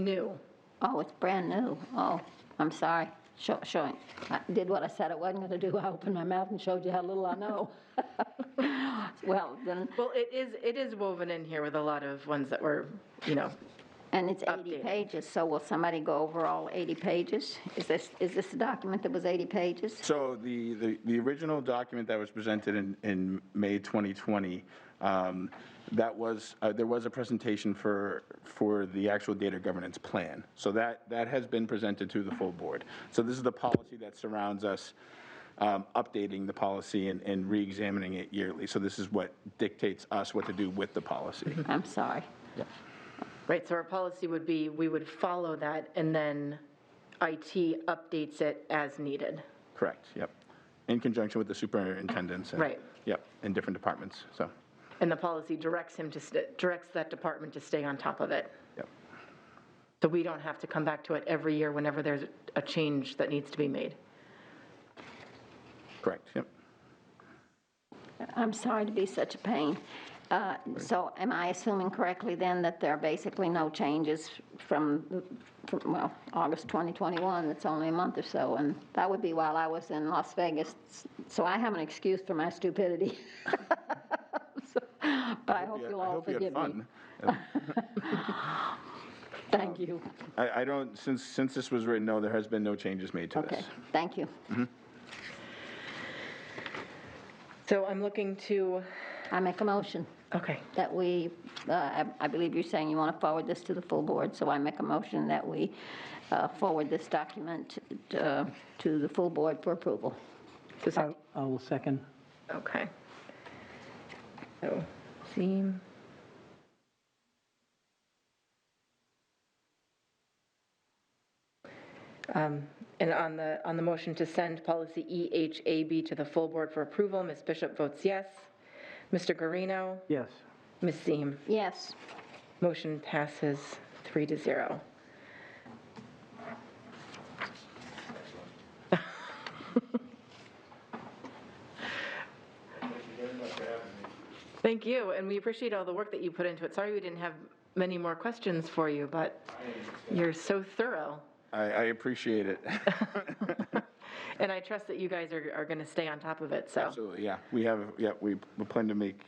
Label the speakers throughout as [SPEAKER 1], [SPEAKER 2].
[SPEAKER 1] new.
[SPEAKER 2] Oh, it's brand new. Oh, I'm sorry. Sure, sure. I did what I said I wasn't going to do. I opened my mouth and showed you how little I know. Well, then,
[SPEAKER 1] Well, it is, it is woven in here with a lot of ones that were, you know,
[SPEAKER 2] and it's 80
[SPEAKER 1] Updated.
[SPEAKER 2] pages, so will somebody go over all 80 pages? Is this, is this the document that was 80 pages?
[SPEAKER 3] So the, the, the original document that was presented in, in May 2020, um, that was, uh, there was a presentation for, for the actual data governance plan. So that, that has been presented to the full board. So this is the policy that surrounds us, um, updating the policy and, and reexamining it yearly. So this is what dictates us what to do with the policy.
[SPEAKER 2] I'm sorry.
[SPEAKER 1] right, so our policy would be, we would follow that, and then IT updates it as needed.
[SPEAKER 3] Correct, yep. In conjunction with the superintendents. and-
[SPEAKER 1] Right.
[SPEAKER 3] Yep, and different departments, so,
[SPEAKER 1] And the policy directs him to, st- directs that department to stay on top of it.
[SPEAKER 3] yep.
[SPEAKER 1] So we don't have to come back to it every year whenever there's a change that needs to be made.
[SPEAKER 3] Correct, yep.
[SPEAKER 2] I'm sorry to be such a pain. Uh, So am I assuming correctly then that there are basically no changes from, from, well, August 2021, it's only a month or so, and that would be while I was in Las Vegas, so I have an excuse for my stupidity. So, But I hope
[SPEAKER 3] Yeah,
[SPEAKER 2] you'll
[SPEAKER 3] I
[SPEAKER 2] all
[SPEAKER 3] hope you had
[SPEAKER 2] forgive me.
[SPEAKER 3] fun.
[SPEAKER 2] Thank you.
[SPEAKER 3] Uh, I, I don't, since, since this was written, no, there has been no changes made to
[SPEAKER 2] Okay,
[SPEAKER 3] this.
[SPEAKER 2] thank you.
[SPEAKER 1] So I'm looking to,
[SPEAKER 2] I make a motion
[SPEAKER 1] okay,
[SPEAKER 2] that we, uh, I I believe you're saying you want to forward this to the full board, so I make a motion that we uh, forward this document uh, to the full board for approval.
[SPEAKER 1] so sec-
[SPEAKER 4] I I will second.
[SPEAKER 1] okay. So, theme. Um, And on the, on the motion to send policy E EHAB to the full board for approval, Ms. Bishop votes yes. Mr. Guarino?
[SPEAKER 4] Yes.
[SPEAKER 1] Ms. Seem?
[SPEAKER 2] Yes,
[SPEAKER 1] Motion passes three to zero. Thank you, and we appreciate all the work that you put into it. Sorry we didn't have many more questions for you, but you're so thorough.
[SPEAKER 3] I, I appreciate it.
[SPEAKER 1] And I trust that you guys are, are going to stay on top of it, so.
[SPEAKER 3] Absolutely, yeah. We have, yeah, we we plan to make,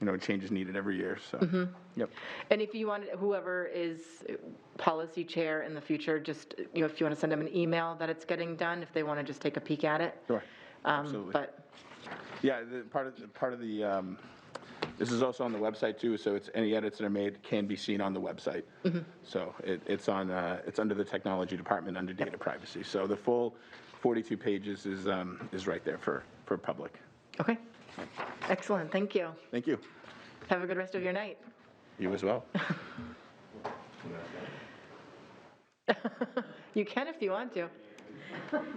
[SPEAKER 3] you know, changes needed every year,
[SPEAKER 2] Mm-hmm.
[SPEAKER 3] so. Yep,
[SPEAKER 1] And if you want, whoever is policy chair in the future, just, you know, if you want to send them an email that it's getting done, if they want to just take a peek at it.
[SPEAKER 3] sure.
[SPEAKER 1] Um,
[SPEAKER 3] Absolutely.
[SPEAKER 1] But,
[SPEAKER 3] Yeah, the, part of, the- part of the, um, this is also on the website too, so it's, any edits that are made can be seen on the website.
[SPEAKER 2] Mm-hmm.
[SPEAKER 3] So it, it's on, uh, it's under the technology department, under data privacy. So the full 42 pages is, um, is right there for, for public.
[SPEAKER 1] okay. Excellent, thank you.
[SPEAKER 3] Thank you.
[SPEAKER 1] Have a good rest of your night.
[SPEAKER 3] You as well.
[SPEAKER 1] You can if you want to.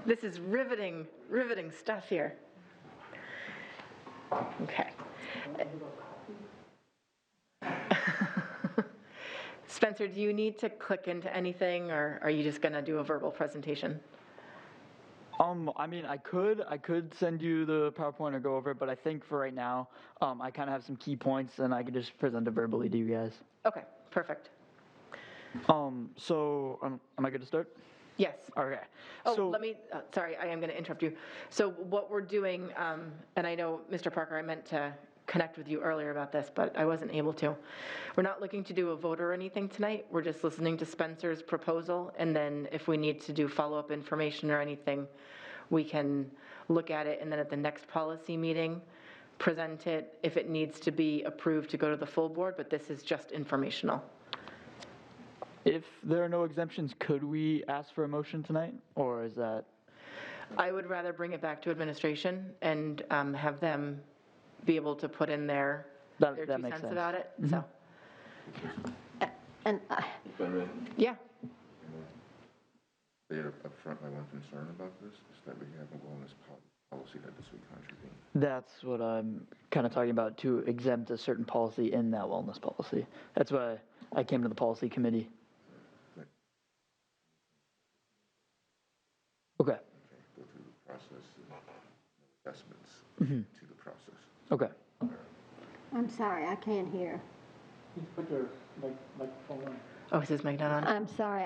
[SPEAKER 1] This is riveting, riveting stuff here. Okay. Spencer, do you need to click into anything, or are you just going to do a verbal presentation?
[SPEAKER 5] Um, I mean, I could, I could send you the PowerPoint or go over it, but I think for right now, um, I kind of have some key points, and I could just present it verbally to you guys.
[SPEAKER 1] Okay, perfect.
[SPEAKER 5] Um, so, um, am I good to start?
[SPEAKER 1] Yes.
[SPEAKER 5] Okay.
[SPEAKER 1] Oh,
[SPEAKER 5] so,
[SPEAKER 1] let me, uh, sorry, I am going to interrupt you. So what we're doing, um, and I know, Mr. Parker, I meant to connect with you earlier about this, but I wasn't able to. We're not looking to do a vote or anything tonight. We're just listening to Spencer's proposal, and then if we need to do follow-up information or anything, we can look at it, and then at the next policy meeting, present it if it needs to be approved to go to the full board, but this is just informational.
[SPEAKER 5] if there are no exemptions, could we ask for a motion tonight, or is that?
[SPEAKER 1] I would rather bring it back to administration and um, have them be able to put in their,
[SPEAKER 5] That-
[SPEAKER 1] their
[SPEAKER 5] that
[SPEAKER 1] two
[SPEAKER 5] makes
[SPEAKER 1] cents
[SPEAKER 5] sense. Mm-hmm.
[SPEAKER 1] about it, so,
[SPEAKER 2] and uh,
[SPEAKER 1] yeah.
[SPEAKER 6] There upfront, my one concern about this is that we have a wellness pol- policy that this would contravene.
[SPEAKER 5] That's what I'm kind of talking about to exempt a certain policy in that wellness policy. That's why I came to the policy committee. Okay.
[SPEAKER 6] Okay, go through the process and adjustments to the process.
[SPEAKER 5] Okay.
[SPEAKER 2] I'm sorry, I can't hear.
[SPEAKER 4] Put your microphone on.
[SPEAKER 1] Oh, is his mic not on?
[SPEAKER 2] I'm sorry,